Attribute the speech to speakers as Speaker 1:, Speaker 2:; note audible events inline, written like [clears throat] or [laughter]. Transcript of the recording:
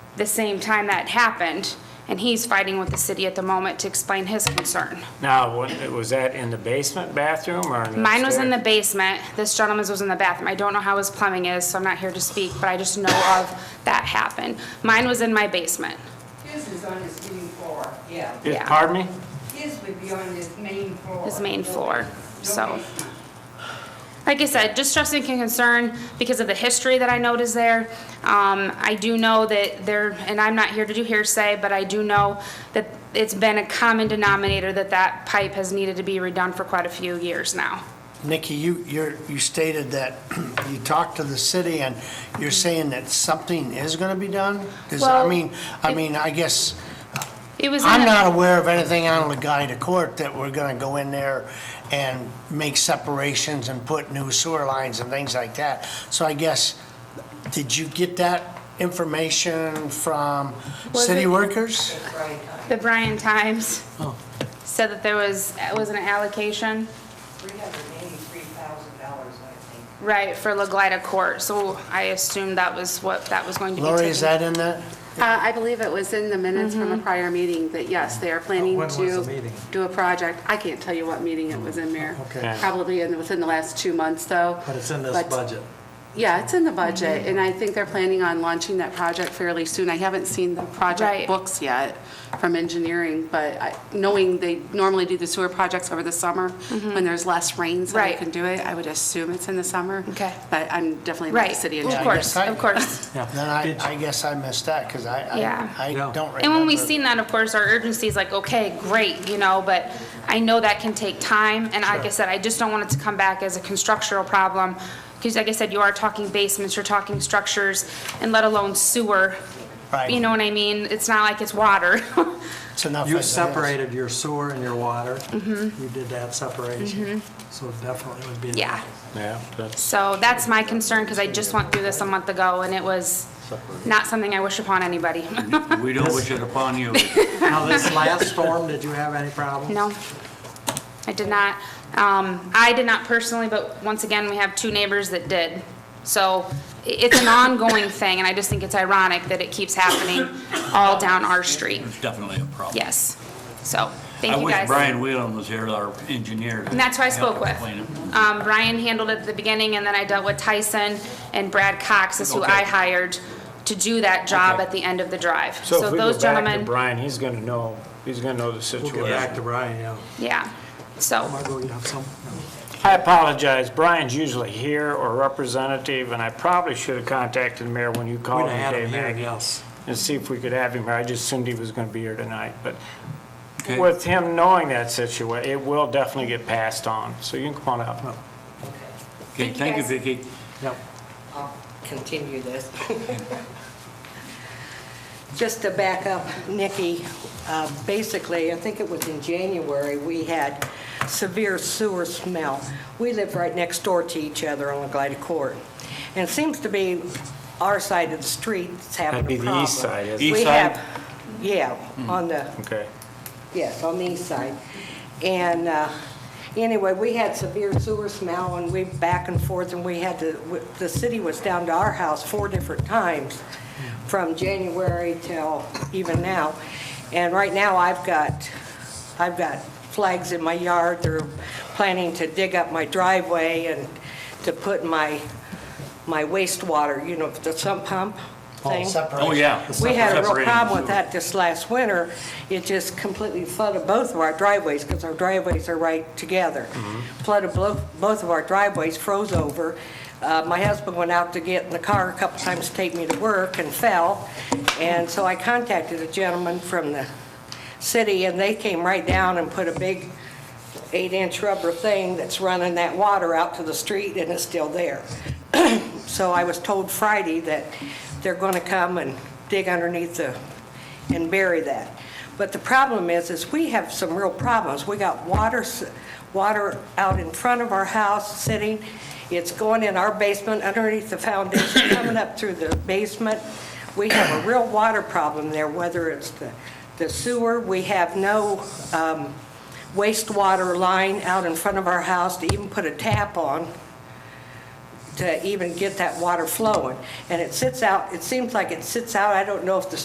Speaker 1: the same time that happened, and he's fighting with the city at the moment to explain his concern.
Speaker 2: Now, what- was that in the basement bathroom or? an
Speaker 1: Mine was in the
Speaker 2: upstairs?
Speaker 1: basement, this gentleman's was in the bathroom. I don't know how his plumbing is, so I'm not here to speak, but I just know of that happened. Mine was in my basement.
Speaker 3: His is on his main floor, yeah.
Speaker 2: Yes,
Speaker 1: yeah.
Speaker 2: Pardon me?
Speaker 3: His would be on his main floor.
Speaker 1: His main
Speaker 3: No
Speaker 1: floor,
Speaker 3: bas- no
Speaker 1: so.
Speaker 3: basement.
Speaker 1: Like I said, just distressing and concern because of the history that I note is there. Um, I do know that there, and I'm not here to do hearsay, but I do know that it's been a common denominator that that pipe has needed to be redone for quite a few years now.
Speaker 4: Nikki, you, you're, you stated that [clears throat] you talked to the city and you're saying that something is gonna be done? Cause I
Speaker 1: Well,
Speaker 4: mean, I
Speaker 1: it-
Speaker 4: mean, I guess,
Speaker 1: It was. in
Speaker 4: I'm
Speaker 1: a-
Speaker 4: not aware of anything on Legaida Court that we're gonna go in there and make separations and put new sewer lines and things like that. So I guess, did you get that information from
Speaker 1: Was
Speaker 4: city
Speaker 1: it-
Speaker 4: workers?
Speaker 3: That's right.
Speaker 1: The Bryan Times
Speaker 4: Oh.
Speaker 1: said that there was, it was an allocation,
Speaker 3: Three hundred and eighty-three thousand dollars, I think.
Speaker 1: right, for LaGlida Court, so I assumed that was what that was going to be taken.
Speaker 4: Lori, is that in that?
Speaker 5: Uh, I believe it was in the minutes from a
Speaker 1: Mm-hmm.
Speaker 5: prior meeting that, yes, they are planning
Speaker 6: When was the
Speaker 5: to
Speaker 6: meeting?
Speaker 5: do a project. I can't tell you what meeting it was in, Mayor.
Speaker 6: Okay.
Speaker 5: Probably in, within the last two months, though.
Speaker 6: But it's in this
Speaker 5: But-
Speaker 6: budget.
Speaker 5: Yeah, it's
Speaker 1: Mm-hmm.
Speaker 5: in the budget, and I think they're planning on launching that project fairly soon. I haven't seen the
Speaker 1: Right.
Speaker 5: project books yet from engineering, but I- knowing they normally do the sewer projects over the summer, when there's less rain, so they
Speaker 1: Mm-hmm. Right.
Speaker 5: can do it, I would assume it's in the summer.
Speaker 1: Okay.
Speaker 5: But I'm definitely not
Speaker 1: Right,
Speaker 5: the city
Speaker 1: of
Speaker 5: engineer.
Speaker 1: course,
Speaker 4: Yeah, I-
Speaker 1: of
Speaker 4: [laughs]
Speaker 1: course.
Speaker 4: Then I, I guess I missed that, cause I,
Speaker 1: Yeah.
Speaker 4: I, I
Speaker 6: Yeah.
Speaker 4: don't remember.
Speaker 1: And when we seen that, of course, our urgency is like, okay, great, you know, but I know that can take time, and like I said, I just don't want it to come back as a constructural problem, because like I said, you are talking basements, you're talking structures, and let alone sewer.
Speaker 4: Right.
Speaker 1: You know what I mean? It's not like it's water. [laughs]
Speaker 4: It's enough
Speaker 6: You
Speaker 4: as it is.
Speaker 6: separated your sewer and your water. You did that separation. So definitely would be.
Speaker 1: Mm-hmm. Yeah.
Speaker 2: Yeah, that's,
Speaker 1: So that's my concern, because I just went through this a month ago, and it was not something I wish upon anybody. [laughs]
Speaker 7: We don't wish it upon you.
Speaker 6: Now, this last storm, did you have any problems?
Speaker 1: No, I did not. Um, I did not personally, but once again, we have two neighbors that did. So i- it's an ongoing thing, and I just think it's ironic that it keeps happening all down our street.
Speaker 7: It's definitely a problem.
Speaker 1: Yes. So,
Speaker 7: I
Speaker 1: thank you
Speaker 7: wish
Speaker 1: guys.
Speaker 7: Brian Whelan was here, our engineer.
Speaker 1: And that's who I spoke with.
Speaker 7: Well,
Speaker 1: Um, Brian handled it at the beginning, and then I dealt with Tyson, and Brad Cox is who I
Speaker 7: Okay.
Speaker 1: hired to do that job
Speaker 7: Okay.
Speaker 1: at the end of the drive.
Speaker 2: so
Speaker 1: So
Speaker 2: if we go
Speaker 1: those
Speaker 2: back to
Speaker 1: gentlemen,
Speaker 2: Brian, he's gonna know, he's gonna know the
Speaker 6: We'll get back to
Speaker 2: situation.
Speaker 6: Brian, yeah.
Speaker 1: yeah, so,
Speaker 6: Margot, you have some?
Speaker 2: I apologize, Brian's usually here or representative, and I probably should have contacted the mayor when you
Speaker 6: We'd
Speaker 2: called
Speaker 6: have
Speaker 2: him,
Speaker 6: had him
Speaker 2: Dave
Speaker 6: here,
Speaker 2: Maggie,
Speaker 6: yes.
Speaker 2: and see if we could have him here. I just assumed he was gonna be here tonight, but
Speaker 7: Okay.
Speaker 2: with him knowing that situation, it will definitely get passed on, so you can come on up.
Speaker 7: Okay, thank you, Vicki.
Speaker 6: Yep.
Speaker 3: I'll continue this. Just to back up, Nikki, uh, basically, I think it was in January, we had severe sewer smell. We live right next door to each other on Glida Court. And it seems to be our side of the street that's having a
Speaker 2: That'd be
Speaker 3: problem.
Speaker 2: the east Hmm. side, isn't it?
Speaker 3: We
Speaker 7: East side?
Speaker 3: have- Yeah, on the,
Speaker 2: Okay.
Speaker 3: yes, on the east side. And uh, anyway, we had severe sewer smell, and we back and forth, and we had to, w- the city was down to our house four different times, from January till even now. And right now, I've got, I've got flags in my yard, they're planning to dig up my driveway and to put my, my wastewater, you know, the sump pump thing.
Speaker 7: Oh, yeah.
Speaker 3: We had a real
Speaker 7: Separating
Speaker 3: problem with
Speaker 7: sewer.
Speaker 3: that this last winter. It just completely flooded both of our driveways, because our driveways are right together. Flooded blo- both of our driveways, froze over. Uh, My husband went out to get in the car a couple times to take me to work and fell. And so I contacted a gentleman from the city, and they came right down and put a big eight-inch rubber thing that's running that water out to the street, and it's still there. [clears throat] So I was told Friday that they're going to come and dig underneath the, and bury that. But the problem is, is we have some real problems. We got water, s- water out in front of our house sitting. It's going in our basement underneath the foundation, [coughs] coming up through the basement. We have a real water problem there, whether it's the the sewer. We have no um, wastewater line out in front of our house to even put a tap on to even get that water flowing. And it sits out, it seems like it sits out, I don't know if the